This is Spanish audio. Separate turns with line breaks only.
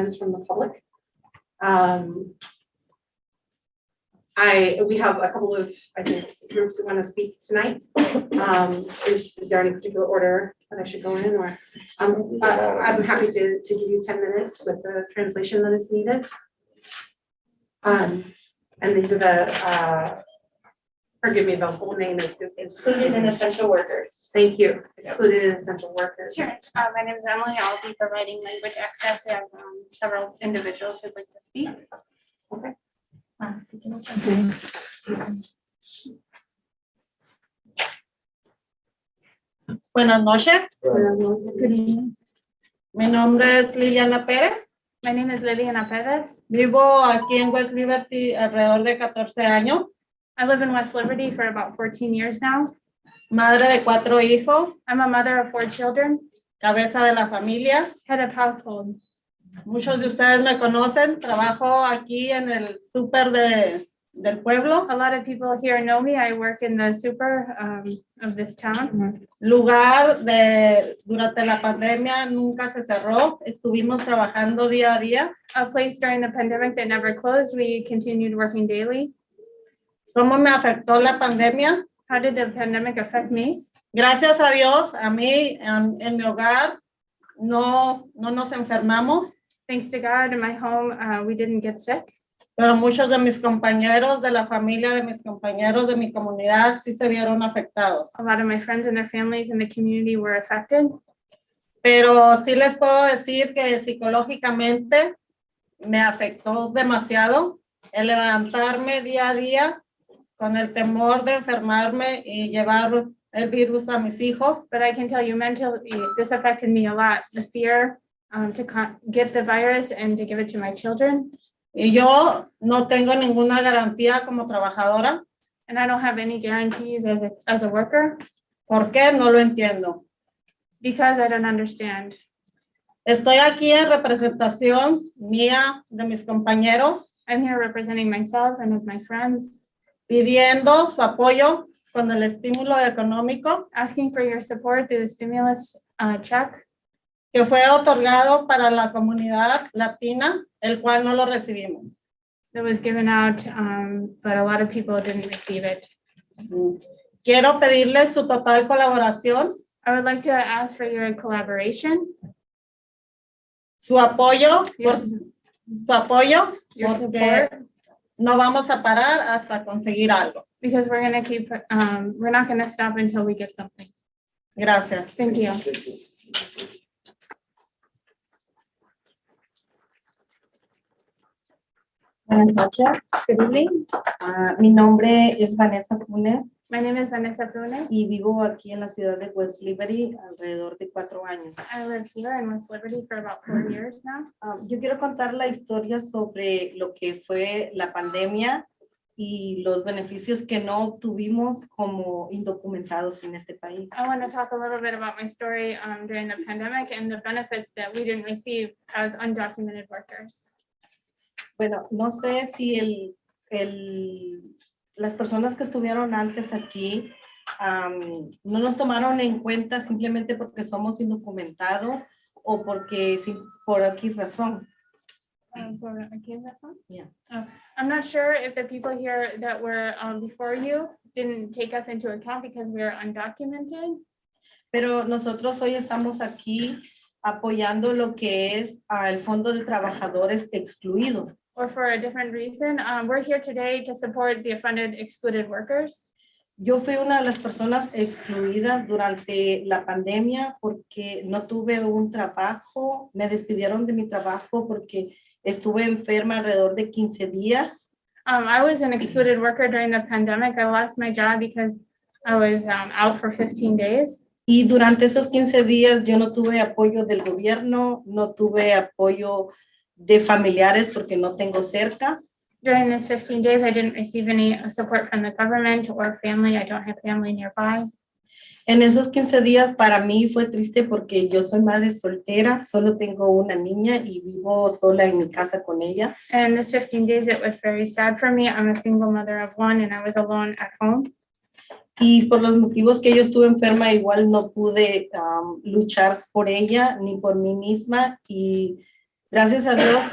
comments from the public. Um, I, we have a couple of, I think, groups that want to speak tonight. Um, Is, is there any particular order that I should go in or? um, uh, I'm happy to, to give you ten minutes with the translation that is needed. Um, And these are the, uh, forgive me, the whole name is, is- is
Included in essential workers.
Thank you, excluded and essential workers.
Sure, uh, my name is Emily. I'll be providing language access. We have um, several individuals who'd like to speak.
Okay.
Um, so can you-
Buenas noches,
Good
mi nombre es Liliana Pérez,
My name is Liliana Perez.
vivo aquí en West Liberty alrededor de 14 años,
I live in West Liberty for about fourteen years now.
madre de cuatro hijos,
I'm a mother of four children,
cabeza de la familia.
head of household.
Muchos de ustedes me conocen, trabajo aquí en el súper de, del pueblo,
A lot of people here know me. I work in the super um, of this town.
lugar de, durante la pandemia nunca se cerró, estuvimos trabajando día a día.
A place during the pandemic that never closed. We continued working daily.
¿Cómo me afectó la pandemia?
How did the pandemic affect me?
Gracias a Dios, a mí, en, en mi hogar, no, no nos enfermamos.
Thanks to God, in my home, uh, we didn't get sick.
pero muchos de mis compañeros, de la familia, de mis compañeros, de mi comunidad, sí se vieron afectados.
A lot of my friends and their families in the community were affected.
Pero sí les puedo decir que psicológicamente me afectó demasiado el levantarme día a día con el temor de enfermarme y llevar el virus a mis hijos.
But I can tell you mentally, this affected me a lot. The fear um, to con- get the virus and to give it to my children.
Y yo no tengo ninguna garantía como trabajadora.
And I don't have any guarantees as a, as a worker
¿Por qué? No lo entiendo.
because I don't understand.
Estoy aquí en representación mía, de mis compañeros,
I'm here representing myself and with my friends,
pidiendo su apoyo con el estímulo económico
asking for your support through the stimulus uh, check
que fue otorgado para la comunidad latina, el cual no lo recibimos.
that was given out, um, but a lot of people didn't receive it.
Quiero pedirles su total colaboración,
I would like to ask for your collaboration,
su apoyo,
your,
por- su apoyo,
your
porque
support.
no vamos a parar hasta conseguir algo.
Because we're gonna keep, um, we're not gonna stop until we get something.
Gracias.
Thank you.
Buenas noches, good evening. Ah, mi nombre es Vanessa Funes
My name is Vanessa Brune.
y vivo aquí en la ciudad de West Liberty alrededor de cuatro años.
I live here in West Liberty for about four years now.
Ah, yo quiero contar la historia sobre lo que fue la pandemia y los beneficios que no obtuvimos como indocumentados en este país.
I wanna talk a little bit about my story, um, during the pandemic and the benefits that we didn't receive as undocumented workers.
Bueno, no sé si el, el- las personas que estuvieron antes aquí am, no nos tomaron en cuenta simplemente porque somos indocumentados o porque sí- por aquí razón.
Um, for- okay, that's on?
Yeah.
Oh, I'm not sure if the people here that were, um, before you didn't take us into account because we are undocumented.
Pero nosotros hoy estamos aquí apoyando lo que es ah, el Fondo de Trabajadores Excluidos.
or for a different reason. Um, we're here today to support the offended excluded workers.
Yo fui una de las personas excluidas durante la pandemia porque no tuve un trabajo, me despidieron de mi trabajo porque estuve enferma alrededor de 15 días.
Um, I was an excluded worker during the pandemic. I lost my job because I was um, out for 15 days.
Y durante esos 15 días yo no tuve apoyo del gobierno, no tuve apoyo de familiares porque no tengo cerca.
During this 15 days, I didn't receive any uh, support from the government or family. I don't have family nearby.
En esos 15 días para mí fue triste porque yo soy madre soltera, solo tengo una niña y vivo sola en mi casa con ella.
And this 15 days, it was very sad for me. I'm a single mother of one and I was alone at home.
Y por los motivos que yo estuve enferma, igual no pude am, luchar por ella ni por mí misma y
Gracias a Dios